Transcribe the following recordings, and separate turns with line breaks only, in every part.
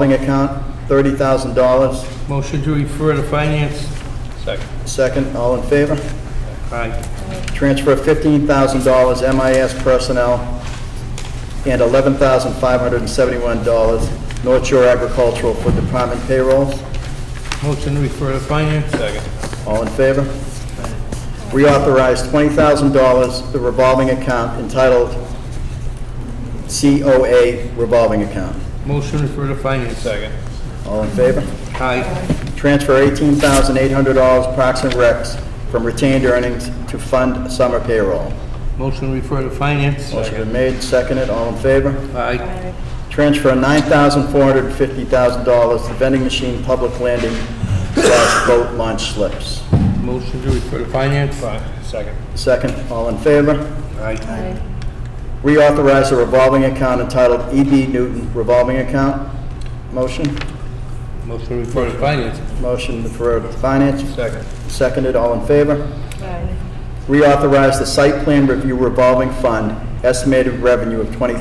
revolving account, $30,000.
Motion to refer to finance.
Second.
Second, all in favor?
Aye.
Transfer $15,000 MIS personnel and $11,571 North Shore Agricultural for department payrolls.
Motion to refer to finance.
Second.
All in favor? Reauthorize $20,000 the revolving account entitled COA revolving account.
Motion to refer to finance.
Second.
All in favor?
Aye.
Transfer $18,800 Parks and Recs from retained earnings to fund summer payroll.
Motion to refer to finance.
Motion been made, seconded, all in favor?
Aye.
Transfer $9,450,000 to vending machine public landing slash boat launch slips.
Motion to refer to finance.
Fi- Second.
Second, all in favor?
Aye.
Reauthorize a revolving account entitled EB Newton Revolving Account. Motion?
Motion to refer to finance.
Motion for finance.
Second.
Seconded, all in favor? Reauthorize the site plan review revolving fund, estimated revenue of $20,000.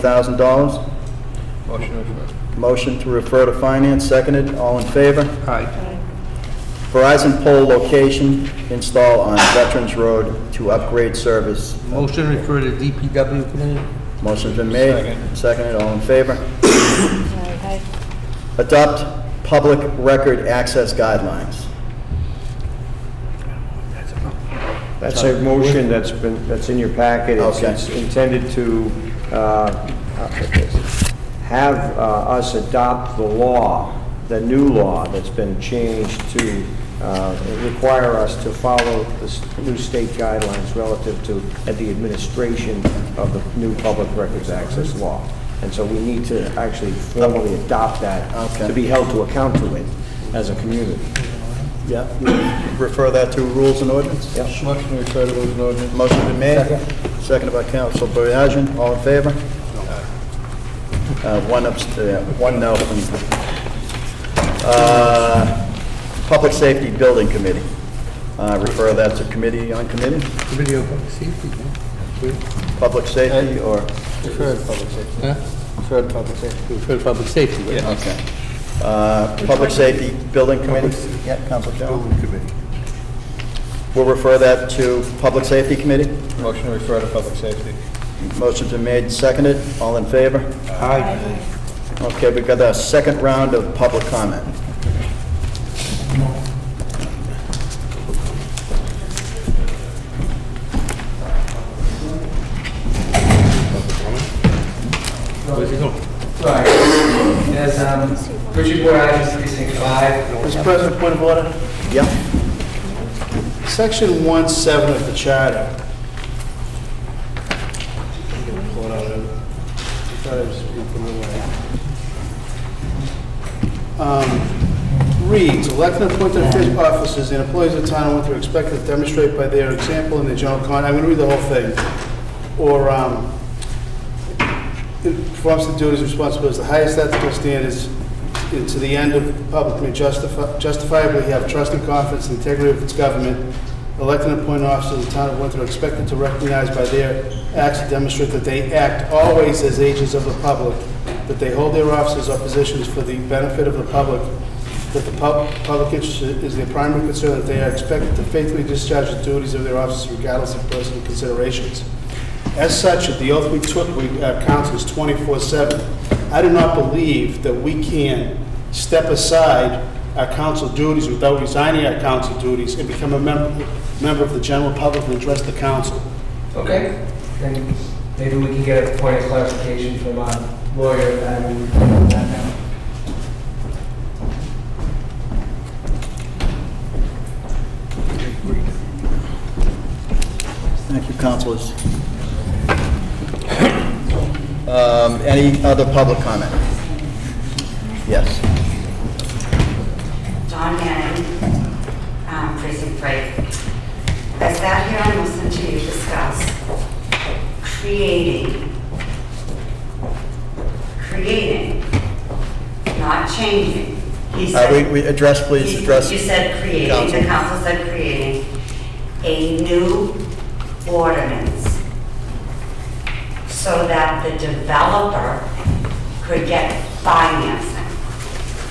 Motion to refer.
Motion to refer to finance, seconded, all in favor?
Aye.
Verizon pole location install on Veterans Road to upgrade service.
Motion to refer to DPW committee.
Motion's been made.
Second.
Seconded, all in favor. Adopt public record access guidelines.
That's a motion that's been, that's in your packet. It's-
Okay.
It's intended to uh, have uh, us adopt the law, the new law that's been changed to uh, require us to follow the s- new state guidelines relative to uh, the administration of the new Public Records Access Law. And so we need to actually formally adopt that,
Okay.
to be held to account to it as a community.
Yeah. Refer that to rules and ordinance?
Yeah.
Motion to refer to rules and ordinance. Motion's been made. Seconded by Council Boyajin, all in favor? Uh, One abst, uh, one no. Uh, Public Safety Building Committee. Uh, Refer that to committee on committee?
Committee of Public Safety. huh?
Public safety or?
Huh? Refer to public safety. right?
Okay. Uh, Public safety, building committee? Yeah, Council Building committee. We'll refer that to public safety committee.
Motion to refer to public safety.
Motion's been made, seconded. All in favor?
Aye.
Okay, we've got a second round of public comment.
Where's Oh, it going?
Sorry. As, um, Richard Borage, precinct five.
Mr. President, point of order.
Yeah?
Section 1-7 of the charter. Hold on, I thought I was speaking the way. Um, Reads, elected appointed offic- officers and employees of the town of Winthrop are expected to demonstrate by their example and their general conduct, I'm going to read the whole thing, or um, it performs the duties and responsibilities, the highest ethical standards, and to the end of the public may justify- justifiably have trust and confidence in the integrity of its government. Elected and appointed officers of the town of Windsor are expected to recognize by their acts to demonstrate that they act always as agents of the public, that they hold their offices or positions for the benefit of the public, that the pub- public interest is their primary concern, that they are expected to faithfully discharge the duties of their offices regardless of personal considerations. As such, at the oath we took, we, uh, our council is 24/7. I do not believe that we can step aside our council duties without resigning our council duties and become a member, member of the general public and address the council.
Okay, then maybe we can get a point of clarification from our lawyer, and that now.
Thank you, councilors. Um, Any other public comment? Yes.
John Manning, um, precinct three. I sat here and listened to you discuss creating, creating, not changing.
Uh,
He
we-
said-
We address, please,
You-
address.
You said creating,
Council.
the council said creating a new ordinance so that the developer could get financing.